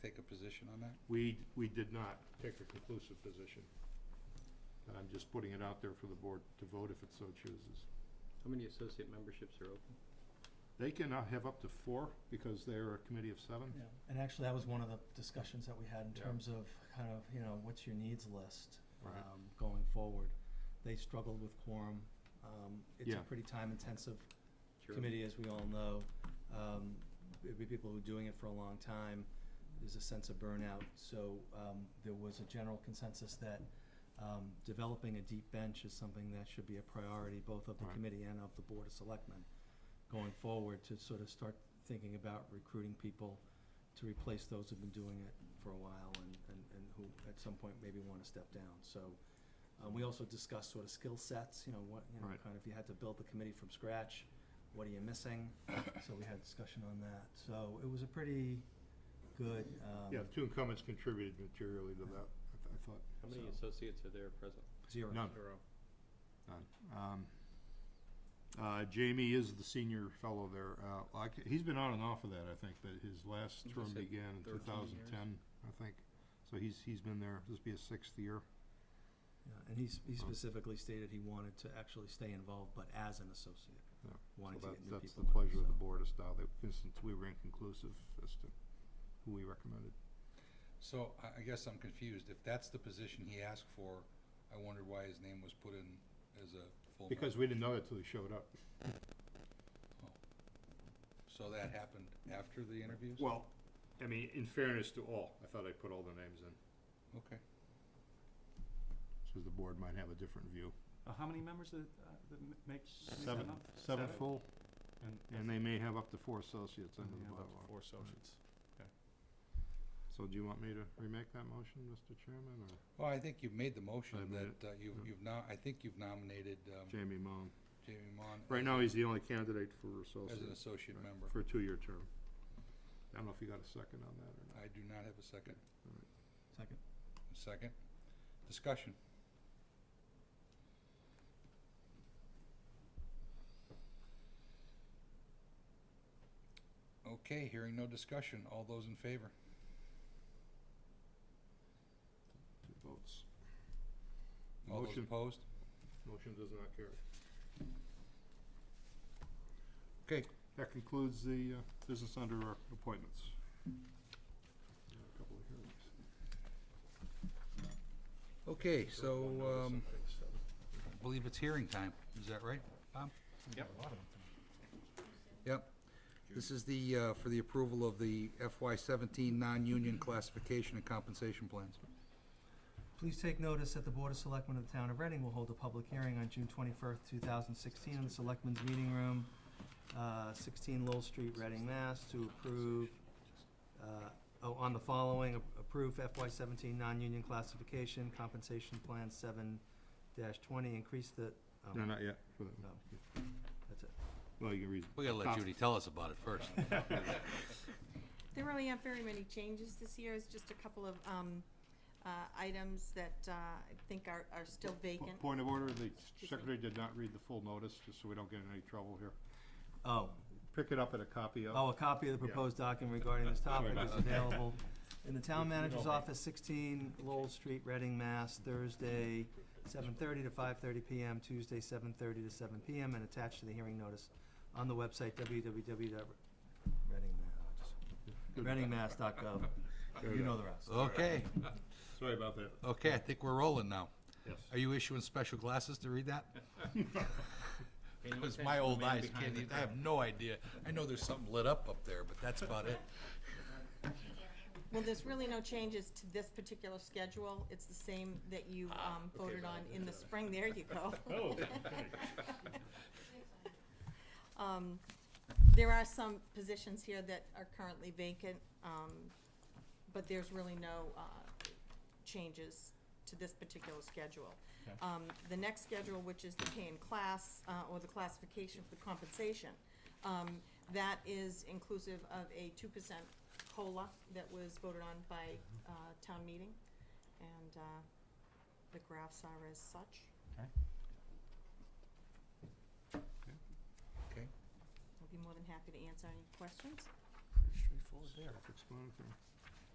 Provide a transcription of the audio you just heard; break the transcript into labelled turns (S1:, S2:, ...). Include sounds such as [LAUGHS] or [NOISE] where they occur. S1: take a position on that?
S2: We, we did not take a conclusive position. And I'm just putting it out there for the board to vote if it so chooses.
S3: How many associate memberships are open?
S2: They can uh, have up to four because they're a committee of seven.
S4: Yeah, and actually, that was one of the discussions that we had in
S2: Yeah.
S4: terms of kind of, you know, what's your needs list,
S2: Right.
S4: um, going forward. They struggled with quorum, um, it's
S2: Yeah.
S4: a pretty time-intensive
S3: Sure.
S4: committee, as we all know. Um, it'd be people who are doing it for a long time, there's a sense of burnout, so, um, there was a general consensus that, um, developing a deep bench is something that should be a priority, both of the
S2: Right.
S4: committee and of the Board of Selectmen, going forward, to sort of start thinking about recruiting people to replace those who've been doing it for a while and, and, and who at some point maybe wanna step down, so. Um, we also discussed sort of skill sets, you know, what, you know,
S2: Right.
S4: kind of if you had to build the committee from scratch, what are you
S2: [COUGHS]
S4: missing? So we had discussion on that, so it was a pretty good, um,
S2: Yeah, the two incumbents contributed materially to that, I th- I thought.
S3: How many
S2: so.
S3: associates are there present?
S4: zero.
S2: None.
S3: Zero.
S2: None. Um, uh, Jamie is the senior fellow there. Uh, like, he's been on and off of that, I think, but his last
S3: He
S2: term
S3: said
S2: began
S3: 13
S2: in two
S3: years.
S2: thousand ten, I think. So he's, he's been there, this will be his sixth year.
S4: Yeah, and he, s- he
S2: Oh.
S4: specifically stated he wanted to actually stay involved, but as an associate,
S2: Yeah. So
S4: wanting to
S2: that-
S4: get new people.
S2: that's the
S4: in,
S2: pleasure of the
S4: so.
S2: board as to how they, since we were inconclusive as to who we recommended.
S1: So I, I guess I'm confused. If that's the position he asked for, I wondered why his name was put in as a full.
S2: Because we didn't know that till he showed up.
S1: So that happened after the interviews?
S2: Well, I mean, in fairness to all, I thought I put all the names in,
S1: Okay.
S2: so the board might have a different view.
S5: Uh, How many members that, uh, that m- make? make that
S2: Seven,
S5: up?
S2: seven full,
S5: And,
S2: and they may have up to four associates
S5: and
S2: under
S5: we
S2: the
S5: have up to
S2: bylaw.
S5: four associates.
S2: So do you want me to remake that motion, Mr. Chairman, or
S1: Well, I think you've made the
S2: I
S1: motion
S2: made it.
S1: that uh, you've, you've now, I think you've nominated um,
S2: Jamie Moan?
S1: Jamie Mon.
S2: Right now, he's the only candidate for
S1: As an
S2: associate,
S1: associate
S2: Right.
S1: member.
S2: for a two-year term. I don't know if you got a second on that or not.
S1: I do not have a second.
S4: Second.
S1: A Second. Discussion. Okay, hearing no discussion. All those in favor?
S2: Two votes.
S1: All those
S2: Motion,
S1: opposed?
S2: motion does not carry.
S1: Okay,
S2: That concludes the uh, business under our appointments. There are A couple of hearings.
S1: okay, so,
S2: One notice,
S1: um,
S2: I think, so.
S1: I believe it's hearing time. Is that right, Bob?
S5: Yep.
S1: Yep. This is the, uh, for the approval of the FY seventeen non-union classification and compensation plans.
S4: Please take notice that the Board of Selectmen of the Town of Reading will hold a public hearing on June twenty-first, two thousand sixteen, in the Selectmen's Meeting Room, uh, sixteen Lowell Street, Reading, Mass, to approve, uh, oh, on the following, a- approve FY seventeen non-union classification compensation plan seven dash twenty, increase the, oh,
S2: No, not yet, for that one.
S4: no, that's it.
S2: Well, you can read.
S1: We gotta let
S2: [LAUGHS]
S1: Judy tell us about it first.
S6: There really aren't very many changes this year, it's just a couple of, um, uh, items that, uh, I think are, are still vacant.
S2: Point of order, the
S6: me.
S2: secretary did not read the full notice, just so we don't get in any trouble here.
S4: Oh,
S2: Pick it up at a copy of.
S4: Oh, a copy of the proposed document regarding this topic is
S2: [LAUGHS]
S4: available in the town manager's office, sixteen Lowell Street, Reading, Mass, Thursday, seven thirty to five thirty PM, Tuesday, seven thirty to seven PM, and attached to the hearing notice on the website, uh, www.readingmass.gov. You know the rest.
S1: Okay,
S2: Sorry about that.
S1: okay, I think we're rolling now.
S2: Yes.
S1: Are you issuing special glasses to read that?
S2: [LAUGHS]
S1: Because my old eyes can't, even- I have no idea. I know there's something lit up up there, but that's about it.
S2: [LAUGHS]
S6: Well, there's really no changes to this particular schedule, it's the same that you, um, voted on in the spring, there you go. [LAUGHS] Um, there are some positions here that are currently vacant, um, but there's really no, uh, changes to this particular schedule. Um, the next schedule, which is the pay and class, uh, or the classification for the compensation, um, that is inclusive of a two percent COLA that was voted on by, uh, town meeting. And, uh, the graphs are as such.
S1: Okay,
S6: I'll be more than happy to answer any questions.
S2: Self-explanatory.